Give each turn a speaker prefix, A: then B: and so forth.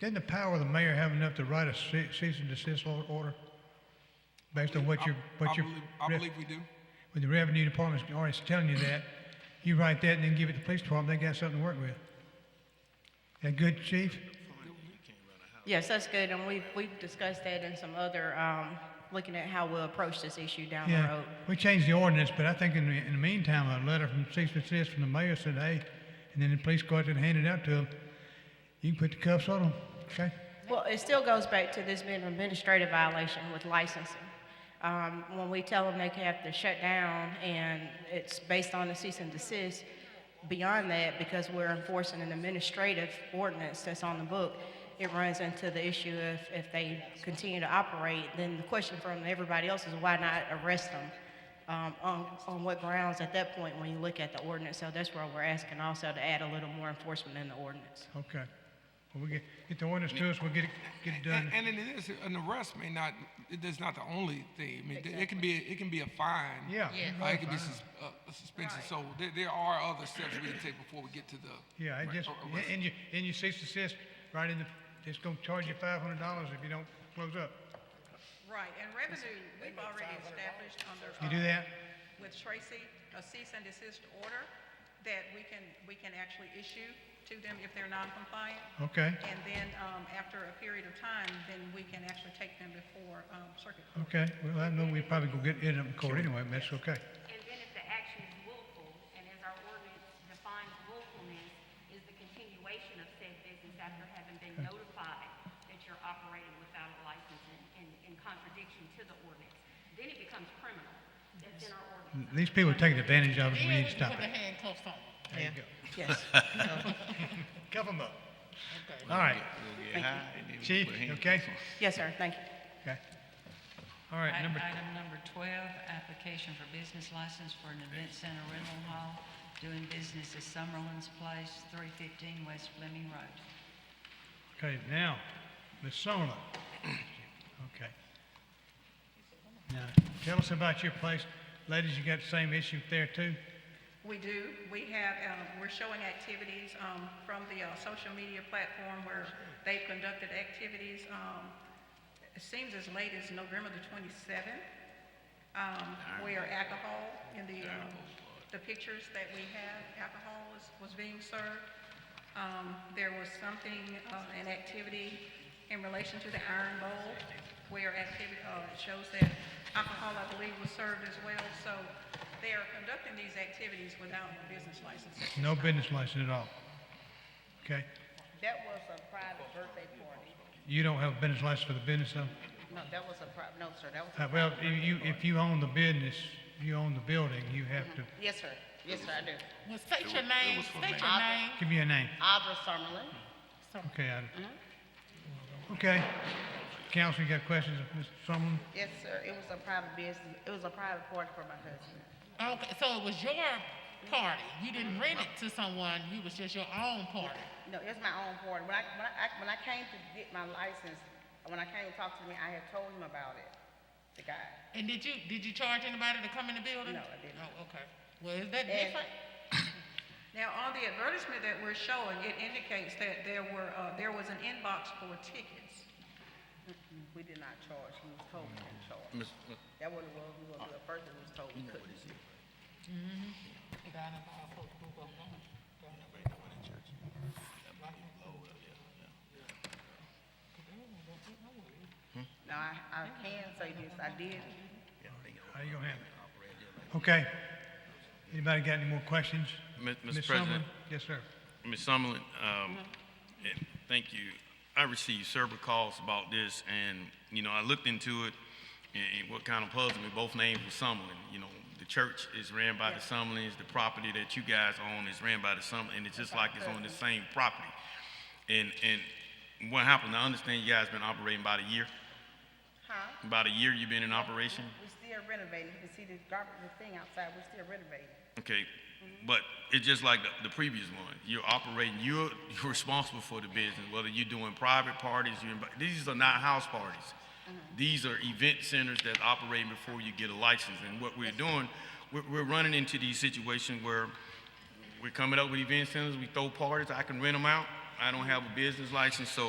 A: Didn't the power of the mayor have enough to write a ce- cease and desist or- order? Based on what your,
B: I
A: what your,
B: believe- I
A: re-
B: believe we do.
A: when the revenue department's already telling you that, you write that and then give it to the police department, they got something to work with. That good, chief?
C: Yes, that's good, and we've, we've discussed that in some other, um, looking at how we'll approach this issue down the
A: Yeah,
C: road.
A: we changed the ordinance, but I think in the, in the meantime, a letter from cease and desist from the mayor said, hey, and then the police go out there and hand it out to them. You can put the cuffs on them, okay?
C: Well, it still goes back to this being an administrative violation with licensing. Um, when we tell them they have to shut down and it's based on the cease and desist, beyond that, because we're enforcing an administrative ordinance that's on the book, it runs into the issue if, if they continue to operate, then the question from everybody else is why not arrest them? Um, on, on what grounds at that point when you look at the ordinance? So that's where we're asking also to add a little more enforcement in the ordinance.
A: Okay. Well, we get, get the ordinance to us, we'll get it, get it done.
B: And, and it is, an arrest may not, it is not the only thing. I mean, it can be, it can be a fine.
A: Yeah.
B: Uh, It can be sus- uh, a suspension. So there, there are other steps we can take before we get to the.
A: Yeah, it just,
B: Or- or-
A: and you, and you cease and desist, right in the, it's gonna charge you five hundred dollars if you don't close up.
D: Right, and revenue, we've already established under.
A: You do
D: uh,
A: that?
D: With Tracy, a cease and desist order that we can, we can actually issue to them if they're non-compliant.
A: Okay,
D: And then, um, after a period of time, then we can actually take them before, um, circuit court.
A: okay. Well, I know we probably gonna get it in court anyway, but that's okay.
E: And then if the action is willful, and as our ordinance defines willfulness, is the continuation of said business after having been notified that you're operating without a license in, in, in contradiction to the ordinance, then it becomes criminal. That's in our ordinance.
A: These people are taking advantage of us, we
F: Yeah,
A: need to
F: we can
A: stop
F: put the
A: it.
F: handcuffs on.
A: There you go.
C: Yes.
A: Cuff them up. All right, chief, okay?
C: Yes, sir, thank you.
A: Okay. All right, number,
G: Item number 12, application for business license for an event center rental hall doing business at Summerlin's Place, 315 West Fleming Road.
A: okay, now, Ms. Summerlin. Okay. Now, tell us about your place. Ladies, you got the same issue there too?
D: We do. We have, um, we're showing activities um, from the uh, social media platform where they've conducted activities, um, it seems as late as November the 27th, um, where alcohol in the, um, the pictures that we have, alcohol was, was being served. Um, There was something, uh, an activity in relation to the Iron Bowl where activity, it shows that alcohol, I believe, was served as well. So they are conducting these activities without a business license.
A: No business license at all. Okay?
H: That was a private birthday party.
A: You don't have a business license for the business though?
H: No, that was a pri, no, sir, that was. a
A: Uh, Well,
H: private
A: if you,
H: birthday
A: if you own the business, you own the building, you have to,
H: party. Yes, sir. Yes, sir, I do.
F: Well, state your name, state your name.
A: give me your name.
H: Audra Summerlin.
A: Okay, Adam. Okay. Counsel, you got questions of Mr. Sumlin?
H: Yes, sir. It was a private business. It was a private party for my husband.
F: Okay, so it was your party. You didn't rent it to someone. You was just your own party.
H: No, it's my own party. When I, when I, when I came to get my license, when I came to talk to me, I had told him about it, the guy.
F: And did you, did you charge anybody to come in the building?
H: No, I didn't.
F: Oh, okay. Well, is
H: And-
F: that different?
D: Now, on the advertisement that we're showing, it indicates that there were, uh, there was an inbox for tickets.
H: We did not charge. He was told we didn't charge.
I: uh,
H: That wasn't what we were, the first one was told we couldn't. Now, I, I can say this. I did
A: How you gonna handle it? Okay. Anybody got any more questions?
I: Mi- Mr.
A: Ms.
I: President,
A: Sumlin? Yes, sir.
I: Ms. Summerlin, um,
H: Mm-hmm.
I: eh, thank you. I received several calls about this, and, you know, I looked into it, and and what kind of puzzled me, both names were Summerlin. You know, the church is ran by the Summerlins, the property that you guys own is ran by the Summerlin, and it's just like it's on the same property. And, and what happened, I understand you guys been operating about a year?
H: Huh?
I: About a year you've been in operation?
H: We're still renovating. You can see this garbage, the thing outside, we're still renovating.
I: Okay, but it's just like the, the previous one. You're operating, you're, you're responsible for the business, whether you're doing private parties, you're, invi- these are not house parties. These are event centers that operate before you get a license. And what we're doing, we're, we're running into these situations where we're coming up with event centers, we throw parties, I can rent them out. I don't have a business license, so